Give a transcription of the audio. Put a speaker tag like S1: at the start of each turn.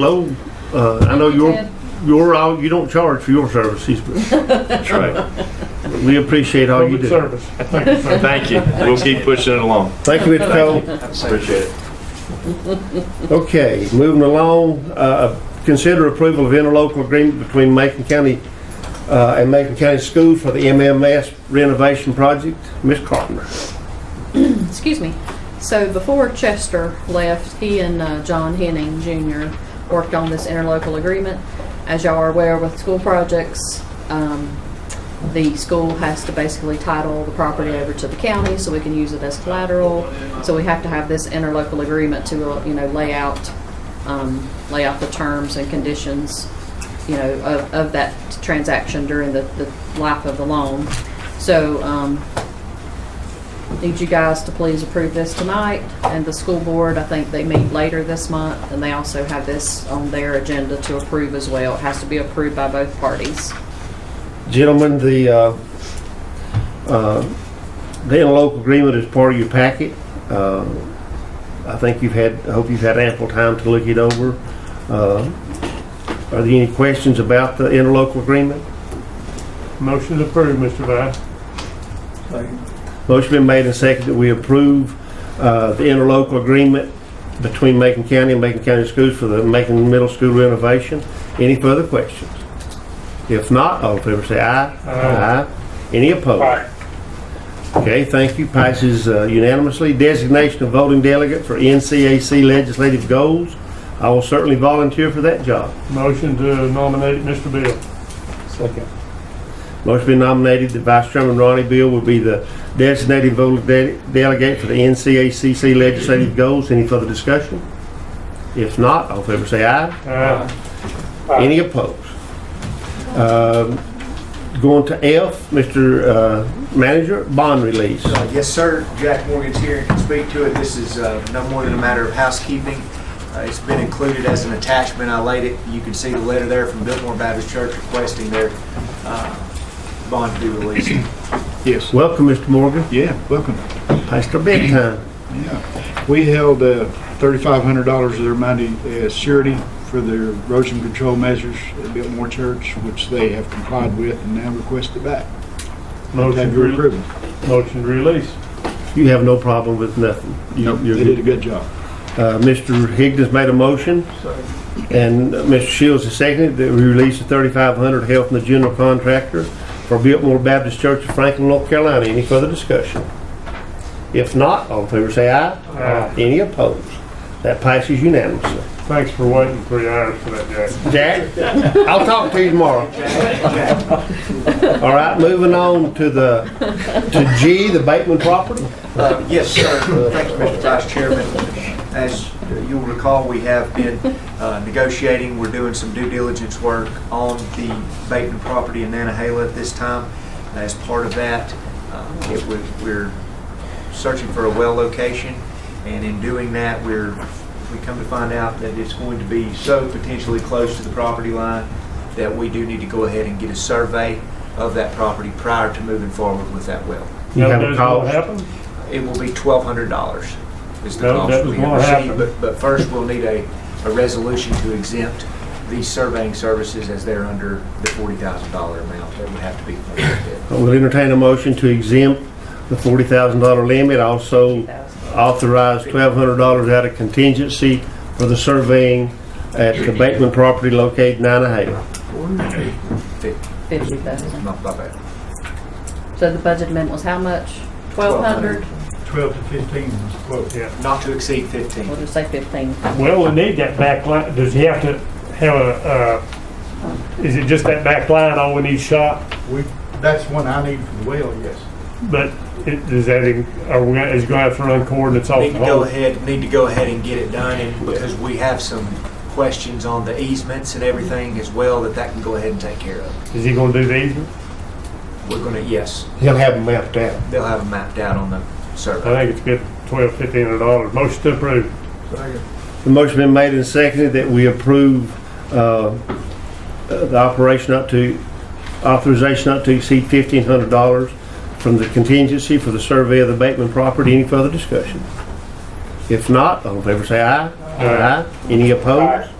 S1: low. Uh, I know
S2: We
S1: you're,
S2: did.
S1: you're all, you don't charge for your services, but
S3: That's right.
S1: we appreciate all you
S4: Public
S1: do.
S4: service.
S5: Oh.
S4: Thank you, sir.
S3: Thank you. We'll keep pushing it along.
S1: Thank you, Mr. Cole.
S3: Appreciate it.
S1: Okay, moving along, uh, consider approval of interlocal agreement between Macon County uh, and Macon County Schools for the MMS renovation project. Ms. Carpenter.
S2: excuse me. So before Chester left, he and uh, John Henning Jr. worked on this interlocal agreement. As y'all are aware with school projects, um, the school has to basically title the property over to the county so we can use it as collateral. So we have to have this interlocal agreement to, uh, you know, lay out, um, lay out the terms and conditions, you know, of, of that transaction during the, the life of the loan. So, um, need you guys to please approve this tonight. And the school board, I think they meet later this month, and they also have this on their agenda to approve as well. It has to be approved by both parties.
S1: Gentlemen, the, uh, uh, the interlocal agreement is part of your packet. Uh, I think you've had, I hope you've had ample time to look it over. Uh, Are there any questions about the interlocal agreement?
S4: Motion to approve, Mr. Vice.
S1: Motion been made and seconded that we approve uh, the interlocal agreement between Macon County and Macon County Schools for the Macon Middle School renovation. Any further questions? If not, all in favor say aye.
S4: Aye.
S1: Any opposed? Okay, thank you. Passes uh, unanimously. Designation of voting delegate for NCAC legislative goals. I will certainly volunteer for that job.
S4: Motion to nominate Mr. Bill. Second.
S1: Motion been nominated that Vice Chairman Ronnie Bill will be the designated voting de- delegate for the NCACC legislative goals. Any further discussion? If not, all in favor say aye.
S4: Aye.
S1: Any opposed? Um, Going to F, Mr. uh, Manager, bond release.
S5: Uh, Yes, sir. Jack Morgan's here and can speak to it. This is uh, no more than a matter of housekeeping. Uh, It's been included as an attachment. I laid it, you can see the letter there from Biltmore Baptist Church requesting their uh, bond to be released.
S6: Yes,
S1: Welcome, Mr. Morgan.
S6: yeah, welcome.
S1: Past our bedtime.
S6: Yeah, We held uh, $3,500 of their money as surety for their erosion control measures at Biltmore Church, which they have complied with and now request it back.
S4: Motion
S6: Have your
S4: to,
S6: approval.
S4: motion to release.
S1: You have no problem with nothing. You-
S6: Nope,
S1: you're
S6: They
S1: good.
S6: did a good job.
S1: Uh, Mr. Higgins made a motion, and uh, Mr. Shields has seconded that we release the thirty-five hundred held from the general contractor for Biltmore Baptist Church of Franklin, North Carolina. Any further discussion? If not, all in favor say aye.
S4: Aye.
S1: Any opposed? That passes unanimously.
S4: Thanks for waiting three hours for that, Jack.
S1: Jack, I'll talk to you tomorrow. All right, moving on to the, to G, the Bateman property.
S5: Uh, Yes, sir. Thank you, Mr. Vice Chairman. As you'll recall, we have been uh, negotiating, we're doing some due diligence work on the Bateman property in Nanahala at this time. As part of that, uh, it would- we're searching for a well location, and in doing that, we're, we come to find out that it's going to be so potentially close to the property line that we do need to go ahead and get a survey of that property prior to moving forward with that well.
S1: You have a
S4: That won't
S1: call.
S4: happen?
S5: It will be twelve hundred dollars is the
S4: No, that
S5: cost
S4: was
S5: we have
S4: gonna
S5: received.
S4: happen.
S5: But, but first, we'll need a, a resolution to exempt these surveying services as they're under the forty thousand dollar amount that would have to be. collected.
S1: We'll entertain a motion to exempt the forty thousand dollar limit, also authorize twelve hundred dollars out of contingency for the surveying at the Bateman property located in Nanahaven.
S2: Fifty thousand.
S5: My- my bad.
S2: So the budget amendment was how much? Twelve hundred?
S6: 12 to 15 was the quote.
S4: Yeah.
S5: Not to exceed fifteen.
S2: We'll just say fifteen.
S4: Well, we need that back line. Does he have to have a, uh, is it just that back line all we need shot?
S6: We, that's one I need for the well, yes.
S4: But it- does that, in- are we, gonna- is he gonna have to run coordinates off
S5: Need
S4: the
S5: to go
S4: whole?
S5: ahead, need to go ahead and get it done, and because we have some questions on the easements and everything as well, that that can go ahead and take care of.
S4: Is he gonna do these?
S5: We're gonna, yes,
S1: He'll have them mapped out.
S5: they'll have them mapped out on the
S4: I
S5: survey.
S4: think it's good, twelve, fifteen hundred dollars. Motion to approve.
S1: The motion been made and seconded that we approve, uh, the operation up to, authorization up to exceed fifteen hundred dollars from the contingency for the survey of the Bateman property. Any further discussion? If not, all in favor say aye. Aye. Any opposed?